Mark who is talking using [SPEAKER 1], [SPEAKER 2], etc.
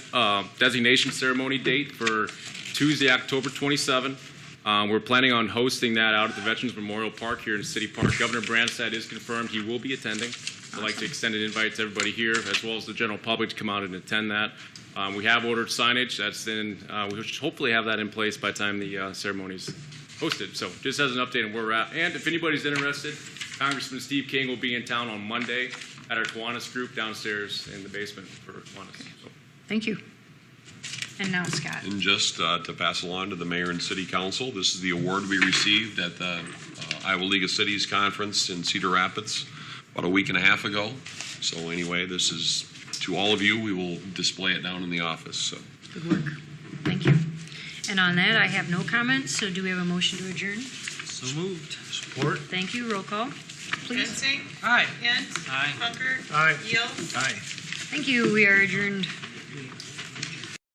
[SPEAKER 1] um, designation ceremony date for Tuesday, October 27. Um, We're planning on hosting that out at the Veterans Memorial Park here in City Park. Governor Branstad is confirmed, he will be attending. I'd like to extend an invite to everybody here, as well as the general public, to come out and attend that. Um, We have ordered signage, that's in, uh, we should hopefully have that in place by the time the uh, ceremony's hosted. So just as an update on where we're at. And if anybody's interested, Congressman Steve King will be in town on Monday at our Kiwanis group downstairs in the basement for Kiwanis. So,
[SPEAKER 2] Thank you. And now Scott.
[SPEAKER 3] And just uh, to pass along to the mayor and city council, this is the award we received at the uh, Iowa League of Cities Conference in Cedar Rapids about a week and a half ago. So anyway, this is to all of you. We will display it down in the office. So
[SPEAKER 2] Good work. Thank you. And on that, I have no comments, so do we have a motion to adjourn?
[SPEAKER 4] So moved. Support.
[SPEAKER 2] Thank you. Roll call, please.
[SPEAKER 5] Vincent?
[SPEAKER 4] Aye.
[SPEAKER 5] Kent?
[SPEAKER 4] Aye.
[SPEAKER 5] Hunker?
[SPEAKER 4] Aye.
[SPEAKER 5] Yield?
[SPEAKER 4] Aye.
[SPEAKER 2] Thank you. We are adjourned.